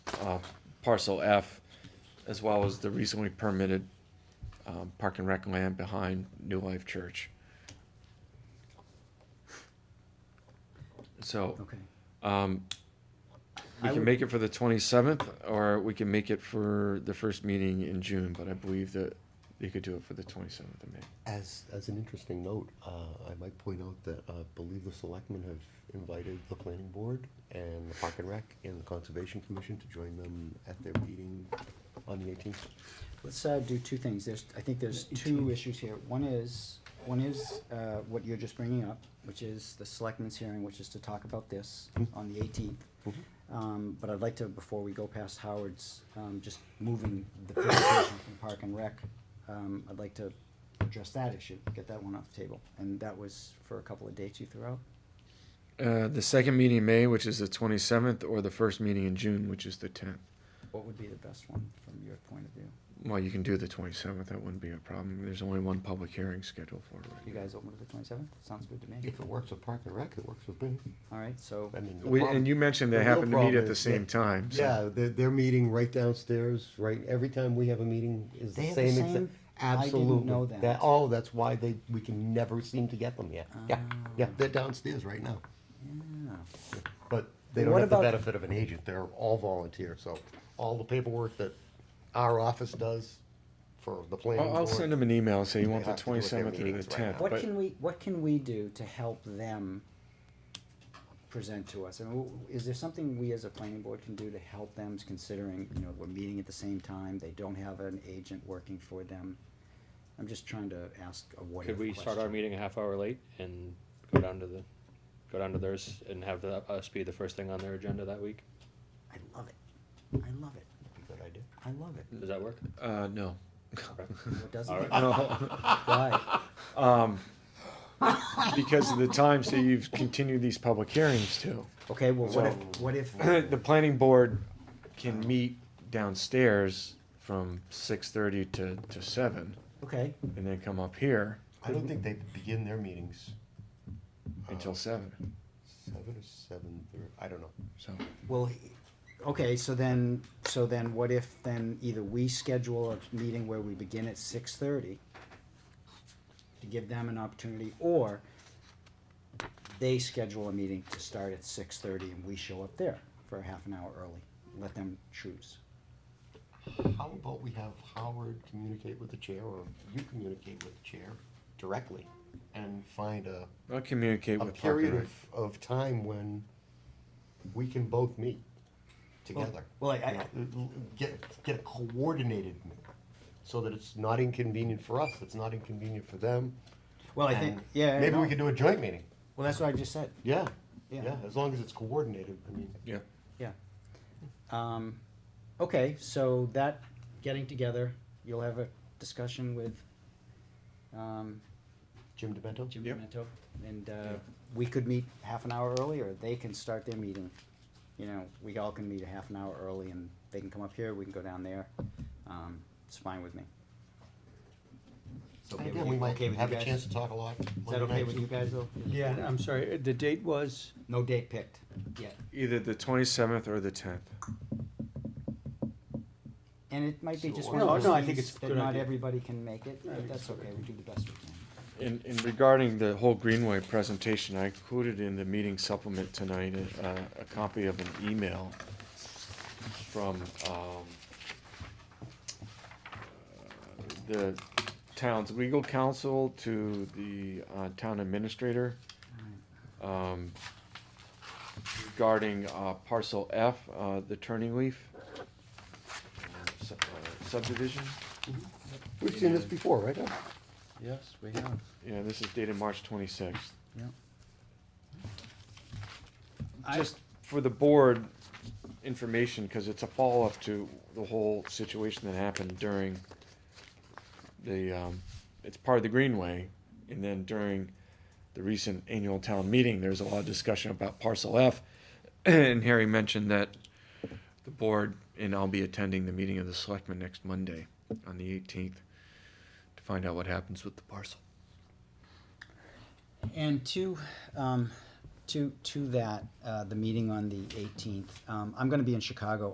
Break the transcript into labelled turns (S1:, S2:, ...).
S1: uh, parcel F, as well as the recently permitted um, park and rec land behind New Life Church. So
S2: Okay.
S1: um, we
S2: I
S1: can
S2: would-
S1: make it for the 27th, or we can make it for the first meeting in June, but I believe that you could do it for the 27th of May.
S3: As, as an interesting note, uh, I might point out that I believe the selectmen have invited the planning board and the park and rec and the conservation commission to join them at their meeting on the eighteenth.
S2: Let's uh, do two things. There's, I think there's two issues here. One is, one is uh, what you're just bringing up, which is the selectmen's hearing, which is to talk about this
S3: Mm-hmm.
S2: on the 18th. Um, But I'd like to, before we go past Howard's, um, just moving the presentation from Park and Rec, um, I'd like to address that issue, get that one off the table. And that was for a couple of dates you threw out?
S1: Uh, the second meeting in May, which is the 27th, or the first meeting in June, which is the 10th.
S2: What would be the best one from your point of view?
S1: Well, you can do the 27th, that wouldn't be a problem. There's only one public hearing scheduled for it. right
S2: You guys open to the 27th? Sounds good to me.
S3: If it works with park and rec, it works with me.
S2: All right, so,
S3: I mean, the
S1: now. We,
S3: problem-
S1: and you mentioned they
S3: the real
S1: happen to meet
S3: problem
S1: at the
S3: is
S1: same
S3: that-
S1: time, so.
S3: Yeah, they're, they're meeting right downstairs, right, every time we have a meeting is
S2: They
S3: the
S2: have the
S3: same
S2: same?
S3: exact.
S2: I didn't
S3: Absolutely.
S2: know that.
S3: Oh, that's why they, we can never seem to get them, yeah, yeah, yeah,
S2: Ah.
S3: they're downstairs right now.
S2: yeah.
S3: But they
S2: And
S3: don't
S2: what
S3: have the
S2: about-
S3: benefit of an agent, they're all volunteer, so all the paperwork that our office does for the planning
S1: I'll,
S3: board.
S1: I'll send them an email and say you
S3: They
S1: want the
S3: have to do what their
S1: 27th or the
S3: meetings right now.
S1: 10th,
S2: What
S1: but
S2: can we, what can we do to help them present to us? I mean, w- is there something we as a planning board can do to help them considering, you know, we're meeting at the same time, they don't have an agent working for them? I'm just trying to ask a what if
S4: Could we start our
S2: question.
S4: meeting a half hour late and go down to the, go down to theirs and have the- us be the first thing on their agenda that week?
S2: I love it, I love it,
S3: Good idea.
S2: I love it.
S4: Does that work?
S1: uh, no.
S2: What doesn't
S4: All
S2: it?
S4: right.
S2: Why?
S1: Because of the times that you've continued these public hearings to.
S2: Okay, well, what if,
S3: So-
S2: what if,
S1: The planning board can meet downstairs from 6:30 to, to 7,
S2: okay,
S1: and then come up here
S3: I don't think they begin their meetings
S1: until 7,
S3: seven or seven thirty, I don't know.
S1: so.
S2: Well, he- okay, so then, so then what if then either we schedule a meeting where we begin at six thirty to give them an opportunity, or they schedule a meeting to start at six thirty and we show up there for a half an hour early, let them choose.
S3: How about we have Howard communicate with the chair, or you communicate with the chair directly, and find a,
S1: I'll communicate
S3: a
S1: with Park and
S3: period
S1: Rec.
S3: of, of time when we can both meet together.
S2: Well, I,
S3: You
S2: I,
S3: know, Get, get a coordinated meeting, so that it's not inconvenient for us, it's not inconvenient for them.
S2: well, I think,
S3: and
S2: yeah,
S3: Maybe
S2: no.
S3: we could do a joint meeting,
S2: well, that's what I just said,
S3: yeah,
S2: Yeah.
S3: yeah, as long as it's coordinated, I mean.
S1: Yeah.
S2: yeah. Um, okay, so that, getting together, you'll have a discussion with, um,
S3: Jim Demento?
S2: Jim
S1: Yep.
S2: Demento, and uh, we could meet half an hour early, or they can start their meeting. You know, we all can meet a half an hour early, and they can come up here, we can go down there. Um, It's fine with me. It's okay
S3: Again,
S2: with
S3: we
S2: you-
S3: might
S2: okay with you
S3: have a
S2: guys?
S3: chance to talk a lot.
S2: Is that okay with you guys, though?
S5: Yeah, I'm sorry, the date was,
S2: No date picked yet,
S1: Either the 27th or the 10th.
S2: and it might be just
S3: Sure.
S2: one of
S5: No,
S2: those
S5: no, I think
S2: things
S5: it's a
S2: that
S5: good
S2: not
S5: idea.
S2: everybody can make it,
S5: I
S2: but
S5: think
S2: that's okay, we do the best we can.
S1: In, in regarding the whole Greenway presentation, I included in the meeting supplement tonight, uh, a copy of an email from, um, the town's legal counsel to the, uh, town administrator, um, regarding, uh, parcel F, uh, the turning leaf uh, sub- uh, subdivision.
S3: We've seen this before, right?
S1: Yes, we have. Yeah, this is dated March twenty-sixth.
S2: Yeah.
S1: Just for the board information, cause it's a follow-up to the whole situation that happened during the, um, it's part of the Greenway, and then during the recent annual town meeting, there's a lot of discussion about parcel F. And Harry mentioned that the board, and I'll be attending the meeting of the selectmen next Monday on the eighteenth to find out what happens with the parcel.
S2: And to, um, to, to that, uh, the meeting on the eighteenth, um, I'm gonna be in Chicago